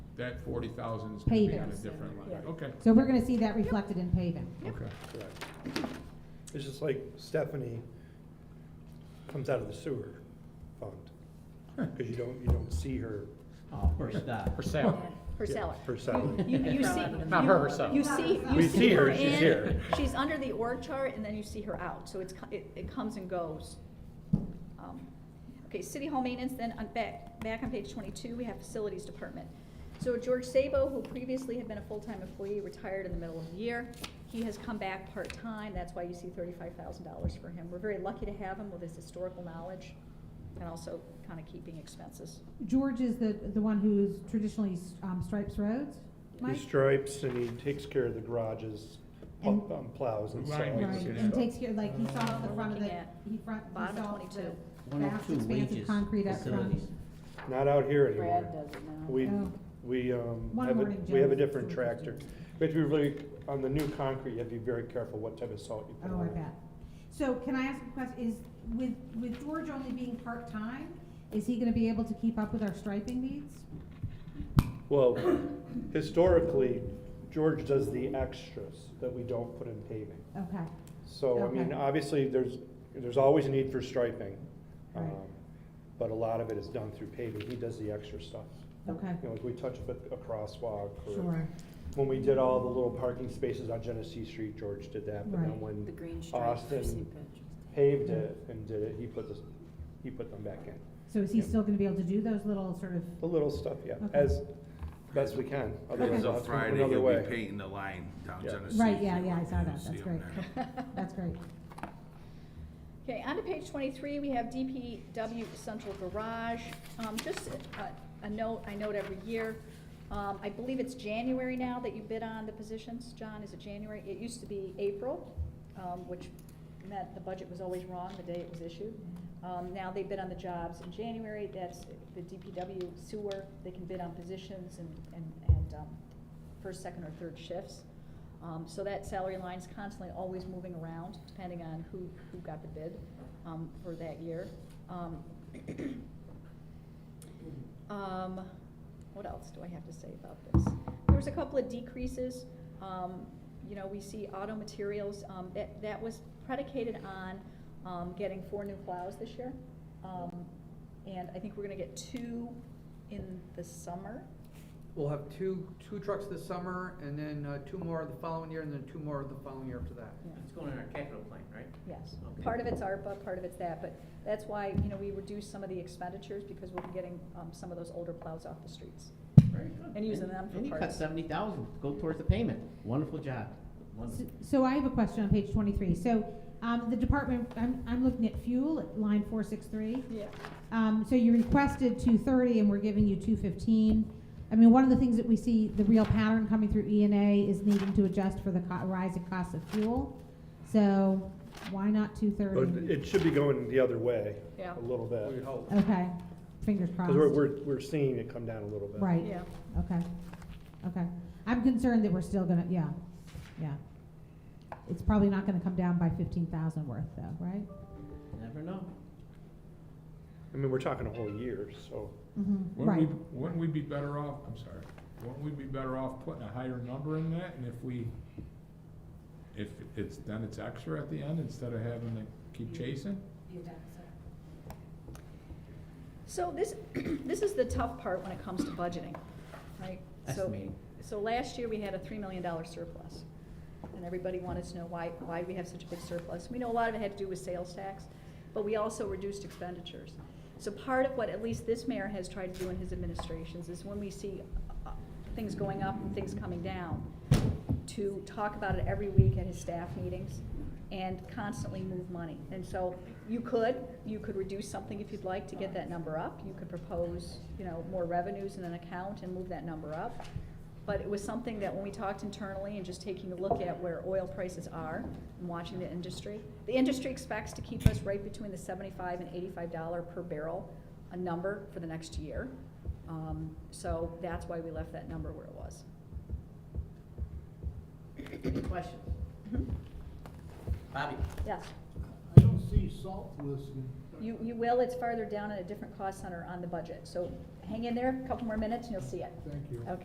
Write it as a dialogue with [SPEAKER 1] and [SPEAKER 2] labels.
[SPEAKER 1] that forty thousand is gonna be on a
[SPEAKER 2] Pavers.
[SPEAKER 1] different line,
[SPEAKER 3] Yeah.
[SPEAKER 1] okay,
[SPEAKER 2] So we're gonna see that reflected in paving.
[SPEAKER 1] okay.
[SPEAKER 4] Correct. It's just like Stephanie comes out of the sewer fund, because you don't, you don't see her.
[SPEAKER 5] Oh, for that, for sale.
[SPEAKER 3] Her salary.
[SPEAKER 4] Her salary.
[SPEAKER 3] You, you see.
[SPEAKER 5] Not her herself.
[SPEAKER 3] You see, you
[SPEAKER 4] We
[SPEAKER 3] see
[SPEAKER 4] see her,
[SPEAKER 3] her
[SPEAKER 4] she's
[SPEAKER 3] in,
[SPEAKER 4] here.
[SPEAKER 3] she's under the org chart, and then you see her out, so it's, co- it, it comes and goes. Um, Okay, city hall maintenance, then on back, back on page twenty-two, we have facilities department. So George Sabo, who previously had been a full-time employee, retired in the middle of the year. He has come back part-time, that's why you see thirty-five thousand dollars for him. We're very lucky to have him with his historical knowledge, and also kind of keeping expenses.
[SPEAKER 2] George is the, the one who's traditionally um, stripes roads,
[SPEAKER 4] He
[SPEAKER 2] Mike?
[SPEAKER 4] stripes and he takes care of the garages, pl-
[SPEAKER 2] And-
[SPEAKER 4] um, plows and
[SPEAKER 1] Ryan, we
[SPEAKER 4] saws.
[SPEAKER 1] can
[SPEAKER 2] Right,
[SPEAKER 1] see
[SPEAKER 2] and
[SPEAKER 1] that.
[SPEAKER 2] takes care, like, he saw the
[SPEAKER 3] We're
[SPEAKER 2] front of the,
[SPEAKER 3] looking at
[SPEAKER 2] he front, he
[SPEAKER 3] bottom
[SPEAKER 2] saw
[SPEAKER 3] 22.
[SPEAKER 2] the
[SPEAKER 5] One
[SPEAKER 2] vast
[SPEAKER 5] oh two
[SPEAKER 2] expanse of
[SPEAKER 5] wages,
[SPEAKER 2] concrete up front.
[SPEAKER 5] facilities.
[SPEAKER 4] Not out here anymore.
[SPEAKER 3] Brad does it now.
[SPEAKER 4] We,
[SPEAKER 2] Oh.
[SPEAKER 4] we, um,
[SPEAKER 2] One
[SPEAKER 4] have a,
[SPEAKER 2] morning,
[SPEAKER 4] we have a
[SPEAKER 2] Jones.
[SPEAKER 4] different tractor. We have to be really, on the new concrete, you have to be very careful what type of salt you put
[SPEAKER 2] Oh,
[SPEAKER 4] on
[SPEAKER 2] I
[SPEAKER 4] it.
[SPEAKER 2] bet. So can I ask a question, is, with, with George only being part-time, is he gonna be able to keep up with our striping needs?
[SPEAKER 4] Well, historically, George does the extras that we don't put in paving.
[SPEAKER 2] Okay,
[SPEAKER 4] So, I mean,
[SPEAKER 2] Okay.
[SPEAKER 4] obviously, there's, there's always a need for striping. um,
[SPEAKER 2] Right.
[SPEAKER 4] But a lot of it is done through paving. He does the extra stuff.
[SPEAKER 2] okay,
[SPEAKER 4] You know, like we touch up a a crosswalk or
[SPEAKER 2] sure,
[SPEAKER 4] when we did all the little parking spaces on Genesee Street, George did that. But
[SPEAKER 2] Right.
[SPEAKER 4] then when
[SPEAKER 6] The green stripe for
[SPEAKER 4] Austin
[SPEAKER 6] St. Patrick's.
[SPEAKER 4] paved it and did it, he put this, he put them back in.
[SPEAKER 2] so is he
[SPEAKER 4] Yeah.
[SPEAKER 2] still gonna be able to do those little sort of,
[SPEAKER 4] The little stuff, yeah,
[SPEAKER 2] Okay.
[SPEAKER 4] as best we can. Otherwise,
[SPEAKER 7] As
[SPEAKER 4] we'll
[SPEAKER 7] of
[SPEAKER 4] have to move
[SPEAKER 7] Friday,
[SPEAKER 4] another
[SPEAKER 7] he'll be
[SPEAKER 4] way.
[SPEAKER 7] painting the line down
[SPEAKER 4] Yeah.
[SPEAKER 7] Genesee.
[SPEAKER 2] Right, yeah, yeah, I
[SPEAKER 7] You'll
[SPEAKER 2] saw that.
[SPEAKER 7] see
[SPEAKER 2] That's
[SPEAKER 7] him
[SPEAKER 2] great.
[SPEAKER 7] there.
[SPEAKER 2] that's great.
[SPEAKER 3] Okay, on to page twenty-three, we have DPW Central Garage. Um, just a, a note, I note every year, um, I believe it's January now that you bid on the positions, John, is it January? It used to be April, um, which meant the budget was always wrong the day it was issued. Um, now they bid on the jobs in January, that's the DPW sewer, they can bid on positions and, and, and, um, first, second, or third shifts. Um, so that salary line's constantly always moving around, depending on who, who got the bid, um, for that year. Um, um, what else do I have to say about this? There was a couple of decreases, um, you know, we see auto materials, um, that, that was predicated on, um, getting four new plows this year. Um, and I think we're gonna get two in the summer,
[SPEAKER 8] We'll have two, two trucks this summer, and then uh, two more the following year, and then two more the following year after that.
[SPEAKER 3] Yeah.
[SPEAKER 5] It's going in our capital plan, right?
[SPEAKER 3] Yes,
[SPEAKER 5] Okay.
[SPEAKER 3] part of it's ARPA, part of it's that, but that's why, you know, we reduce some of the expenditures because we're getting, um, some of those older plows off the streets.
[SPEAKER 5] Very good.
[SPEAKER 3] And using them for
[SPEAKER 5] And you cut
[SPEAKER 3] parts.
[SPEAKER 5] seventy thousand, go towards the payment. Wonderful job. Wonderful.
[SPEAKER 2] So I have a question on page twenty-three, so, um, the department, I'm, I'm looking at fuel, at line four six three.
[SPEAKER 3] Yeah.
[SPEAKER 2] Um, so you requested two thirty and we're giving you two fifteen. I mean, one of the things that we see, the real pattern coming through E and A is needing to adjust for the co- rise in cost of fuel. So why not two
[SPEAKER 4] But
[SPEAKER 2] thirty?
[SPEAKER 4] it should be going the other way.
[SPEAKER 3] Yeah.
[SPEAKER 4] A little
[SPEAKER 1] We
[SPEAKER 4] bit.
[SPEAKER 1] hope.
[SPEAKER 2] Okay, fingers crossed.
[SPEAKER 4] Because we're, we're, we're seeing it come down a little bit.
[SPEAKER 2] Right.
[SPEAKER 3] Yeah.
[SPEAKER 2] Okay, okay. I'm concerned that we're still gonna, yeah, yeah. It's probably not gonna come down by fifteen thousand worth though, right?
[SPEAKER 5] Never know.
[SPEAKER 4] I mean, we're talking a whole year, so.
[SPEAKER 2] Mhm,
[SPEAKER 1] Wouldn't
[SPEAKER 2] Right,
[SPEAKER 1] we, wouldn't we be better off, I'm sorry, wouldn't we be better off putting a higher number in that, and if we, if it's, then it's extra at the end, instead of having to keep chasing?
[SPEAKER 3] So this, this is the tough part when it comes to budgeting, right? So-
[SPEAKER 5] Estimating.
[SPEAKER 3] So last year, we had a three million dollar surplus, and everybody wanted to know why, why we have such a big surplus. We know a lot of it had to do with sales tax, but we also reduced expenditures. So part of what at least this mayor has tried to do in his administrations is when we see uh, things going up and things coming down, to talk about it every week at his staff meetings and constantly move money. And so you could, you could reduce something if you'd like to get that number up. You could propose, you know, more revenues in an account and move that number up. But it was something that when we talked internally and just taking a look at where oil prices are and watching the industry, the industry expects to keep us right between the seventy-five and eighty-five dollar per barrel, a number for the next year. Um, so that's why we left that number where it was.
[SPEAKER 5] Question. Bobby,
[SPEAKER 3] Mm-hmm. Yes,
[SPEAKER 9] I don't see salt listed.
[SPEAKER 3] you, you will, it's farther down in a different cost center on the budget, so hang in there, a couple more minutes and you'll see it.
[SPEAKER 9] Thank you.
[SPEAKER 3] Okay.